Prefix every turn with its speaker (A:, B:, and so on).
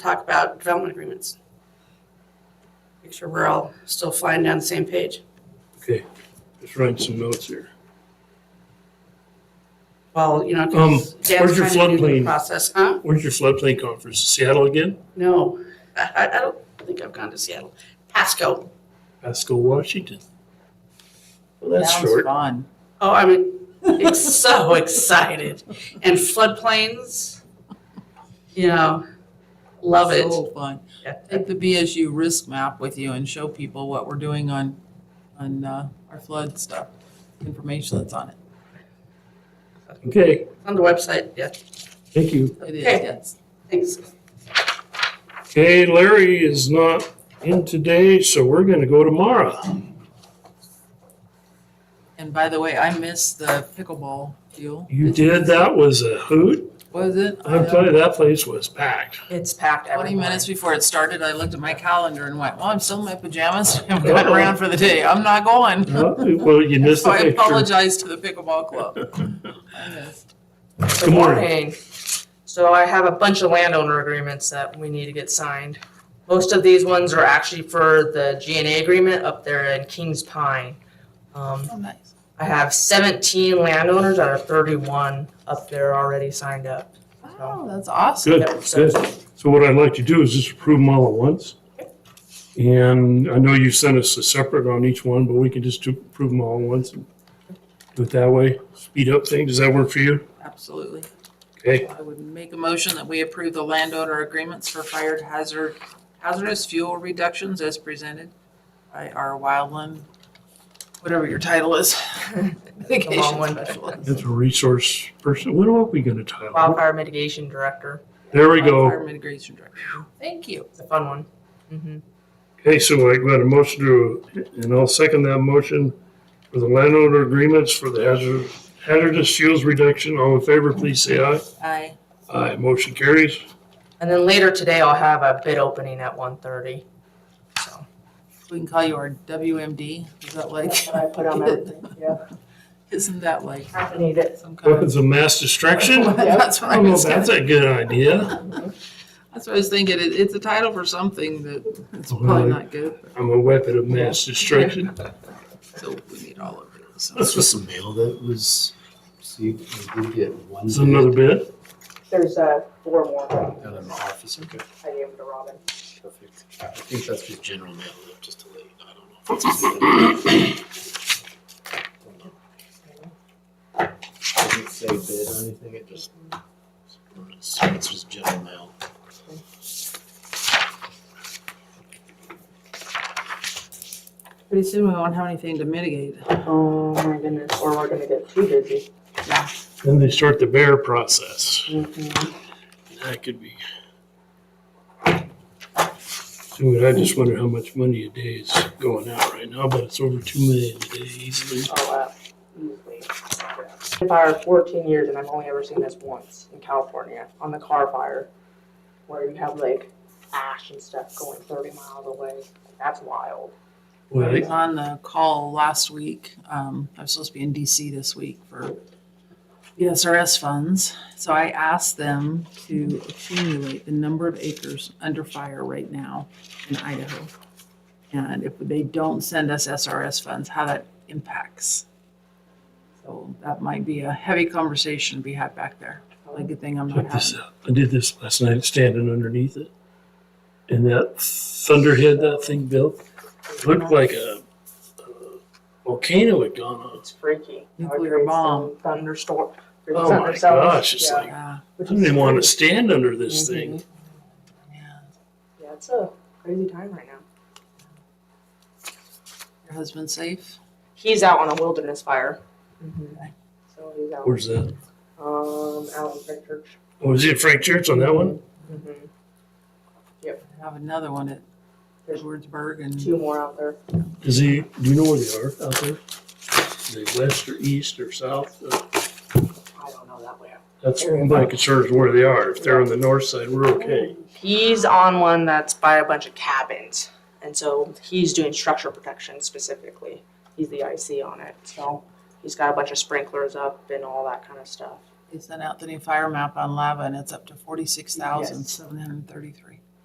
A: talk about development agreements. Make sure we're all still flying down the same page.
B: Okay, just writing some notes here.
A: Well, you know, 'cause
B: Um,
A: Dan's
B: where's your
A: trying to do the
B: floodplain?
A: process, huh?
B: Where's your floodplain conference? Seattle again?
A: No, I, I I don't think I've gone to Seattle. Pasco.
B: Pasco, Washington. Well, that's
C: Sounds
B: short.
C: fun.
A: Oh, I'm ex- so excited. And floodplains, you know, love it.
C: So fun.
A: Yeah.
C: Take the BSU risk map with you and show people what we're doing on, on uh, our flood stuff, information that's on it.
B: Okay,
A: On the website, yeah,
B: thank you.
C: It is,
A: Okay.
C: yes.
A: thanks.
B: Okay, Larry is not in today, so we're gonna go tomorrow.
C: And by the way, I missed the pickleball deal.
B: You did, that was a hoot.
C: Was it? I
B: I'm
C: know.
B: telling you, that place was packed.
D: It's packed every
C: Twenty minutes before it started, I looked at my calendar and went, well, I'm still in my pajamas. I'm going
B: Uh-oh.
C: around for the day. I'm not going.
B: Well, you missed
C: So
B: the
C: I
B: picture.
C: apologize to the pickleball club. I missed.
D: Good
B: morning.
D: So I have a bunch of landowner agreements that we need to get signed. Most of these ones are actually for the GNA agreement up there in Kings Pine. Um,
C: Oh, nice.
D: I have seventeen landowners out of thirty-one up there already signed up.
C: Oh, that's awesome.
B: Good, good. So what I'd like to do is just approve them all at once. And I know you sent us a separate on each one, but we can just do- approve them all at once. and Do it that way, speed up things. Does that work for you?
C: Absolutely.
B: Okay,
C: I would make a motion that we approve the landowner agreements for fire hazard, hazardous fuel reductions as presented by our wildland, whatever your title is. Mitigation
D: one.
C: specialist.
B: that's a resource person. What are we gonna title? it?
D: Wildfire mitigation director,
B: There we go.
C: Fire mitigation director. Thank you.
D: it's a fun one. Mhm.
B: Okay, so I got a motion to, and I'll second that motion for the landowner agreements for the hazard, hazardous fuels reduction. All in favor, please say aye.
C: Aye.
B: Aye, motion carries.
D: And then later today, I'll have a bid opening at one thirty, so.
C: We can call you our WMD. Is that like,
D: I put
C: on everything,
D: yeah,
C: isn't that like
D: I need it.
C: some kind of?
B: Weapons of mass destruction? I
C: That's what I
B: don't know if
C: was,
B: Oh, that's a
C: that's
B: good idea.
C: what I was thinking. It, it's a title for something that it's
B: Well,
C: probably not good.
B: I'm a weapon of mass destruction.
C: So we need all of it. so.
E: This was some mail that was received, we did get one.
B: Is another bit?
D: There's uh, four more
E: Out of my office, okay,
D: I gave to Robin.
E: perfect. I think that's just general mail, though, just to let you know, I don't know. if it's- Doesn't say bid or anything, it just, it's just general mail.
C: Pretty soon we won't have anything to mitigate.
D: Oh my goodness, or we're gonna get too busy.
B: Then they start the bear process.
D: Mm-hmm.
B: That could be. Dude, I just wonder how much money a day is going out right now, but it's over two million a day easily.
D: Oh, wow. Easily. Been Fire fourteen years and I've only ever seen this once in California on the car fire. Where you have like ash and stuff going thirty miles away. That's wild.
C: I was
B: Well,
C: on the call last week. Um, I was supposed to be in DC this week for E the SRS funds. So I asked them to accumulate the number of acres under fire right now in Idaho. And if they don't send us E SRS funds, how that impacts. So that might be a heavy conversation to be had back there. Probably a good thing I'm not
B: check this
C: having.
B: out. I did this last night, standing underneath it. And that thunderhead that thing built looked like a a volcano had gone on.
D: It's freaky. How it
C: Nuclear
D: creates
C: bomb.
D: some Thunderstorm.
B: Oh
D: thunder
B: my
D: cells.
B: gosh, it's
D: Yeah,
B: like,
C: Yeah,
B: I
D: which
B: don't
D: is
B: even want to
D: crazy.
B: stand under this thing.
D: Mhm.
C: yeah.
D: Yeah, it's a crazy time right now.
C: Your husband safe?
D: He's out on a wilderness fire. Mm-hmm.
C: Okay.
D: So he's out.
B: Where's that?
D: Um, out in Frank Church.
B: Oh, was it Frank Church on that one?
D: Mhm.
C: I have another one at Edwardsburg and.
D: Two more out there.
B: Is he, do you know where they are out there? Are they west or east or south? Uh,
D: I don't know that way.
B: That's my concern is where they are. If they're on the north side, we're okay.
D: He's on one that's by a bunch of cabins, and so he's doing structure protection specifically. He's the IC on it, so he's got a bunch of sprinklers up and all that kind of stuff.
C: They sent out the new fire map on lava and it's up to forty-six thousand, seven hundred and thirty-three.